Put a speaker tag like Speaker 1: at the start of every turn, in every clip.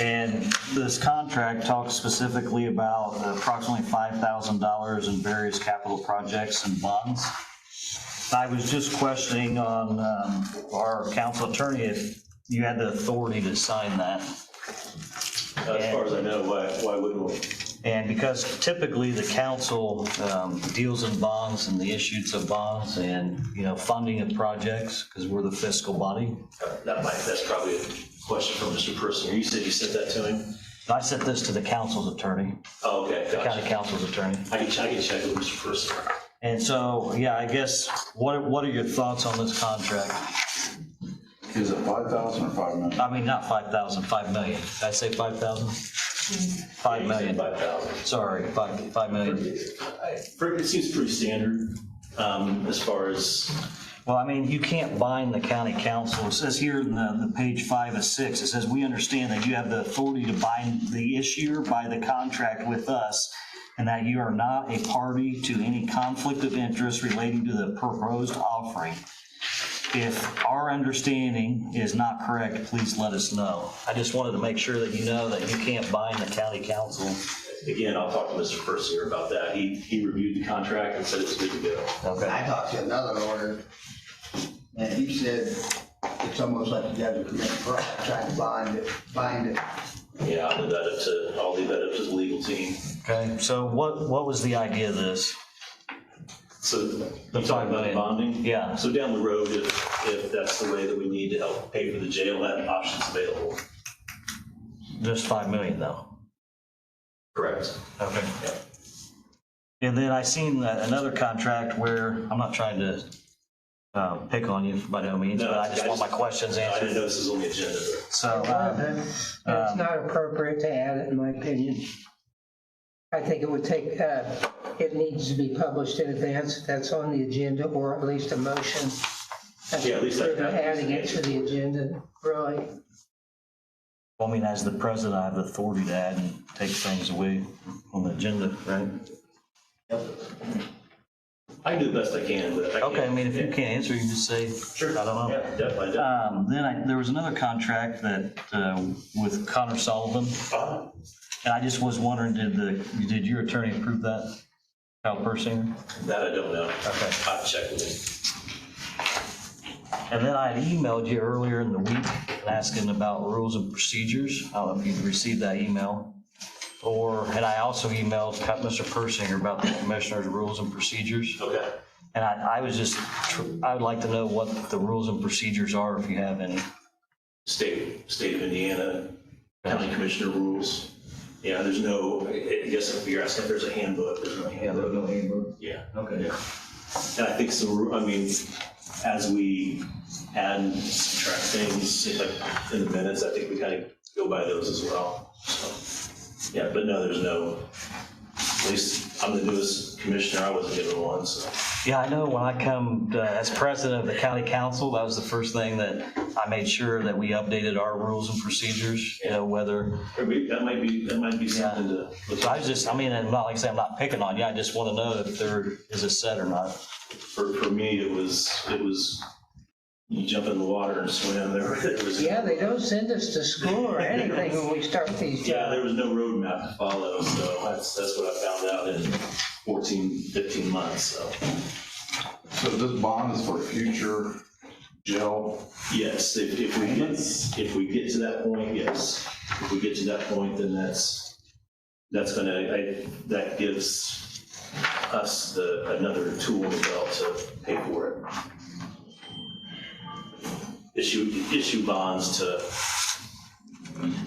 Speaker 1: And this contract talks specifically about approximately $5,000 in various capital projects and bonds. I was just questioning on um, our council attorney if you had the authority to sign that.
Speaker 2: As far as I know, why, why wouldn't we?
Speaker 1: And because typically the council um, deals in bonds and the issues of bonds and, you know, funding of projects, because we're the fiscal body.
Speaker 2: That might, that's probably a question for Mr. Person. You said you sent that to him?
Speaker 1: I sent this to the council's attorney,
Speaker 2: Oh, okay,
Speaker 1: county
Speaker 2: gotcha.
Speaker 1: council's attorney.
Speaker 2: I can, I can check with Mr. Person.
Speaker 1: And so, yeah, I guess, what, what are your thoughts on this contract?
Speaker 3: Is it five thousand or five million?
Speaker 1: I mean, not 5,000, 5 million. Did I say 5,000? 5 million,
Speaker 2: Five thousand.
Speaker 1: sorry, 5, 5 million.
Speaker 2: It seems pretty standard, um, as far as,
Speaker 1: Well, I mean, you can't bind the county council. It says here in the, the page five of six, it says, "We understand that you have the authority to bind the issuer by the contract with us, and that you are not a party to any conflict of interest relating to the proposed offering. If our understanding is not correct, please let us know." I just wanted to make sure that you know that you can't bind the county council.
Speaker 2: again, I'll talk to Mr. Person about that. He, he reviewed the contract and said it's good to go.
Speaker 1: Okay.
Speaker 4: I talked to another lawyer, and he said, it's almost like you guys are committing fraud, trying to bind it, bind it.
Speaker 2: Yeah, I'll leave that up to, I'll leave that up to the legal team.
Speaker 1: Okay, so what, what was the idea of this?
Speaker 2: So you
Speaker 1: five
Speaker 2: talking about
Speaker 1: million.
Speaker 2: bonding?
Speaker 1: Yeah.
Speaker 2: So down the road, if, if that's the way that we need to help pay for the jail, that option's available.
Speaker 1: Just 5 million though?
Speaker 2: Correct.
Speaker 1: Okay.
Speaker 2: Yeah.
Speaker 1: And then I seen that another contract where, I'm not trying to uh, pick on you by no means,
Speaker 2: No,
Speaker 1: but I just
Speaker 2: I
Speaker 1: want my
Speaker 2: just-
Speaker 1: questions
Speaker 2: I didn't know
Speaker 1: answered.
Speaker 2: this was on the agenda.
Speaker 1: So, uh,
Speaker 5: It's
Speaker 2: Um,
Speaker 5: not appropriate to add it, in my opinion. I think it would take, uh, it needs to be published in advance, if that's on the agenda, or at least a motion.
Speaker 2: Yeah, at least I-
Speaker 5: Adding it to the agenda, really.
Speaker 1: I mean, as the president, I have the authority to add and take things away on the agenda, right?
Speaker 2: I can do the best I can, but I can't.
Speaker 1: Okay, I mean, if you can't answer, you just say,
Speaker 2: Sure.
Speaker 1: I don't know.
Speaker 2: Yeah, definitely, definitely.
Speaker 1: Um, Then I, there was another contract that, uh, with Connor Sullivan,
Speaker 2: Uh,
Speaker 1: and I just was wondering, did the, did your attorney approve that? Cal Persinger?
Speaker 2: That I don't know.
Speaker 1: Okay.
Speaker 2: I've checked with him.
Speaker 1: And then I had emailed you earlier in the week asking about rules and procedures. I don't know if you've received that email. Or, and I also emailed Cut- Mr. Persinger about the commissioner's rules and procedures.
Speaker 2: Okay.
Speaker 1: And I, I was just, tr- I would like to know what the rules and procedures are if you have any.
Speaker 2: State, state of Indiana, county commissioner rules. Yeah, there's no, I I guess if you're asking if there's a handbook, there's no handbook. Yeah.
Speaker 1: Okay.
Speaker 2: Yeah. And I think some, ru- I mean, as we add and subtract things like in the minutes, I think we kind of go by those as well. So, Yeah, but no, there's no, at least I'm the newest commissioner, I wasn't given one, so.
Speaker 1: Yeah, I know when I come uh, as president of the county council, that was the first thing that I made sure that we updated our rules and procedures, you know, whether
Speaker 2: Or we- That might be, that might be something to look
Speaker 1: So I
Speaker 2: at
Speaker 1: was just, I mean, and not like I say, I'm not picking on you, I just want to know if there is a set or not.
Speaker 2: for, for me, it was, it was, you jump in the water and swim, there there was.
Speaker 5: Yeah, they don't send us to school or anything when we start these
Speaker 2: Yeah,
Speaker 5: jobs.
Speaker 2: there was no roadmap to follow, so that's, that's what I found out in 14, 15 months, so.
Speaker 3: So this bond is for future jail,
Speaker 2: Yes, if, if we get, if we get to that point, yes. If we get to that point, then that's, that's gonna, I, that gives us the, another tool in the belt to pay for it. Issue, issue bonds to,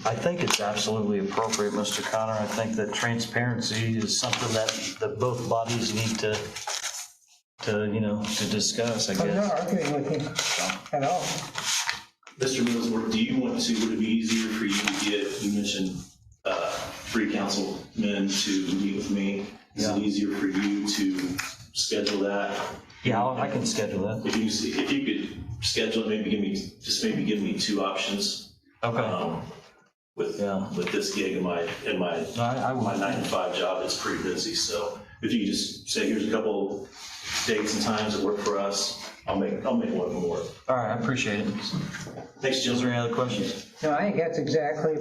Speaker 1: I think it's absolutely appropriate, Mr. Connor, I think that transparency is something that, that both bodies need to, to, you know, to discuss, I
Speaker 5: I'm
Speaker 1: guess.
Speaker 5: not arguing with you at all.
Speaker 2: Mr. Millsworth, do you want to, would it be easier for you to get, you mentioned, uh, three councilmen to meet with me? Is it
Speaker 1: Yeah.
Speaker 2: easier for you to schedule that?
Speaker 1: Yeah, I'll- I can schedule that.
Speaker 2: If you, see- if you could schedule it, maybe give me, just maybe give me two options.
Speaker 1: Okay.
Speaker 2: um, With,
Speaker 1: Yeah.
Speaker 2: with this gig and my, and my,
Speaker 1: No, I, I
Speaker 2: my
Speaker 1: will.
Speaker 2: nine to five job, it's pretty busy, so if you could just say, here's a couple dates and times that work for us, I'll make, I'll make one more.
Speaker 1: All right, I appreciate it.
Speaker 2: Thanks,
Speaker 1: Is
Speaker 2: Jill.
Speaker 1: there any other questions?
Speaker 5: No, I think that's exactly